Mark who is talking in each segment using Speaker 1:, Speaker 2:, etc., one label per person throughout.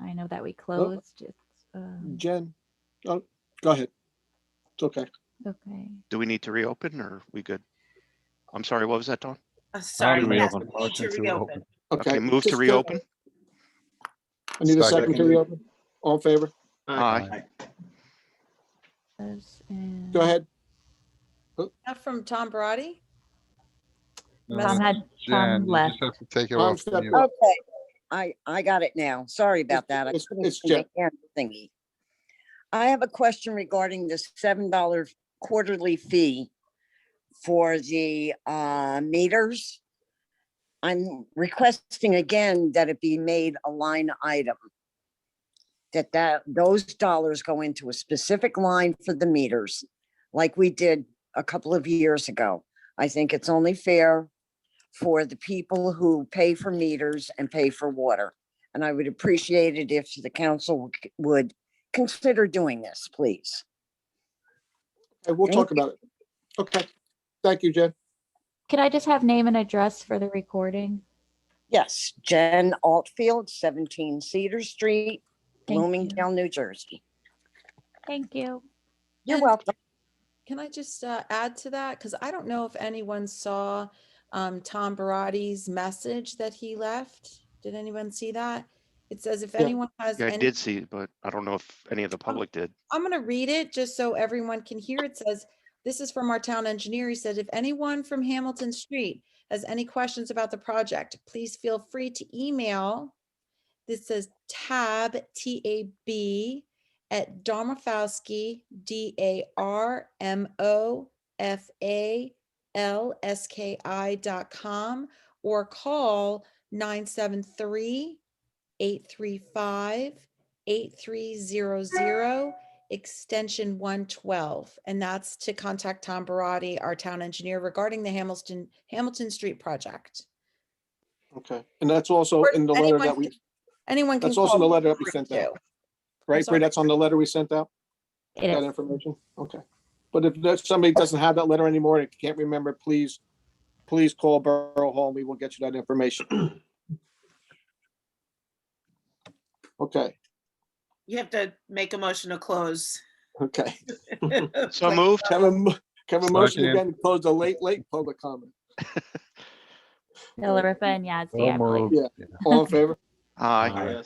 Speaker 1: I know that we
Speaker 2: Oh.
Speaker 1: closed. It's, um,
Speaker 2: Jen, oh, go ahead. It's okay.
Speaker 1: okay.
Speaker 3: Do we need to reopen or we good? I'm sorry, what was that, Don?
Speaker 4: Uh, Sorry,
Speaker 5: to
Speaker 4: yes,
Speaker 5: reopen.
Speaker 3: Oh,
Speaker 4: we need to
Speaker 5: Motion to
Speaker 4: reopen.
Speaker 3: Okay, move to
Speaker 2: just, uh,
Speaker 3: reopen?
Speaker 2: I need a
Speaker 5: Second.
Speaker 2: second to reopen. All in favor?
Speaker 3: Aye.
Speaker 1: those and-
Speaker 2: Go ahead.
Speaker 4: Not from Tom Barati?
Speaker 5: No,
Speaker 1: Tom had,
Speaker 6: Jen, you
Speaker 1: left.
Speaker 6: just have to take it
Speaker 2: Tom
Speaker 6: off.
Speaker 2: stepped
Speaker 6: mute.
Speaker 2: up.
Speaker 7: Okay, I, I got it now. Sorry about that. I
Speaker 2: it's-
Speaker 7: couldn't
Speaker 2: it's
Speaker 7: see the hand thingy. I have a question regarding this seven dollar quarterly fee for the uh, meters. I'm requesting again that it be made a line item. That that, those dollars go into a specific line for the meters, like we did a couple of years ago. I think it's only fair for the people who pay for meters and pay for water. And I would appreciate it if the council c- would consider doing this, please.
Speaker 2: Okay, we'll talk
Speaker 7: Thank you.
Speaker 2: about it. Okay. Thank you, Jen.
Speaker 1: Could I just have name and address for the recording?
Speaker 7: Yes, Jen Altfield, 17 Cedar Street,
Speaker 1: Thank
Speaker 7: Bloomingdale, New Jersey.
Speaker 1: Thank you.
Speaker 7: You're
Speaker 4: And
Speaker 7: welcome.
Speaker 4: Can I just uh, add to that? Because I don't know if anyone saw um, Tom Barati's message that he left. Did anyone see that? It says if
Speaker 2: Yeah.
Speaker 4: anyone has.
Speaker 3: Yeah, I
Speaker 4: any-
Speaker 3: did see, but I don't know if any of the public did.
Speaker 4: I'm going to read it just so everyone can hear. It says, this is from our town engineer. He said, if anyone from Hamilton Street has any questions about the project, please feel free to email. This says tab, T A B, at Darmafowski, D A R M O F A L S K I dot com or call 973 835 8300 extension 112 and that's to contact tom barati our town engineer regarding the hamilton hamilton street project
Speaker 2: Okay. And that's also in the letter
Speaker 4: Anyone
Speaker 2: that we,
Speaker 4: can- anyone can
Speaker 2: that's also in the
Speaker 4: call
Speaker 2: letter that we
Speaker 4: Bree,
Speaker 2: sent out.
Speaker 4: too.
Speaker 2: right, Bree,
Speaker 4: sorry.
Speaker 2: that's on the letter we sent out,
Speaker 1: It
Speaker 2: that
Speaker 1: is.
Speaker 2: information? Okay. But if there's somebody doesn't have that letter anymore and can't remember, please, please call Borough Hall and we will get you that information. Okay,
Speaker 8: You have to make a motion to close.
Speaker 2: okay.
Speaker 3: So moved?
Speaker 2: Have a, mo- have a motion
Speaker 6: Second.
Speaker 2: again, to close the late, late public comment.
Speaker 1: Delariva and Yazdi, I
Speaker 6: So
Speaker 1: believe.
Speaker 6: moved.
Speaker 2: All in favor?
Speaker 3: Aye.
Speaker 5: Aye.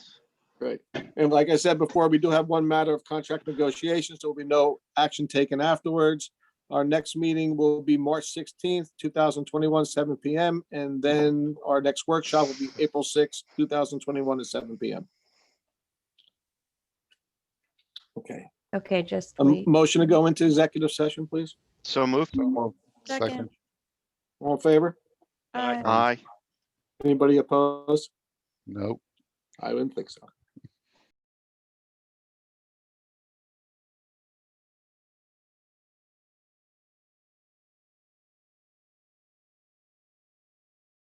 Speaker 2: Great. And like I said before, we do have one matter of contract negotiations. There will be no action taken afterwards. Our next meeting will be March sixteenth, two thousand twenty-one, seven PM, and then our next workshop will be April sixth, two thousand twenty-one, at seven PM. Okay,
Speaker 1: Okay, just
Speaker 2: a
Speaker 1: wait.
Speaker 2: motion to go into executive session, please.
Speaker 3: So moved?
Speaker 6: Second.
Speaker 2: All in favor?
Speaker 4: Aye.
Speaker 3: Aye.
Speaker 2: Anybody opposed?
Speaker 6: Nope.
Speaker 2: I wouldn't think so.